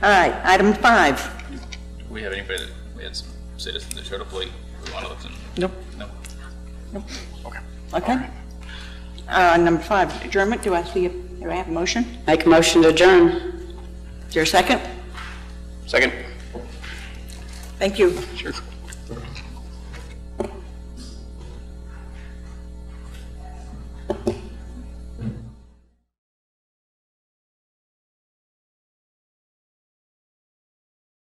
All right, item five. We had anybody, that- we had some citizens that showed up late, a lot of them. Nope. No. Okay. Uh, Number five, adjournment, do I see, a- do I have a motion? Make a motion to adjourn. Is there a second? Second. Thank you. Sure.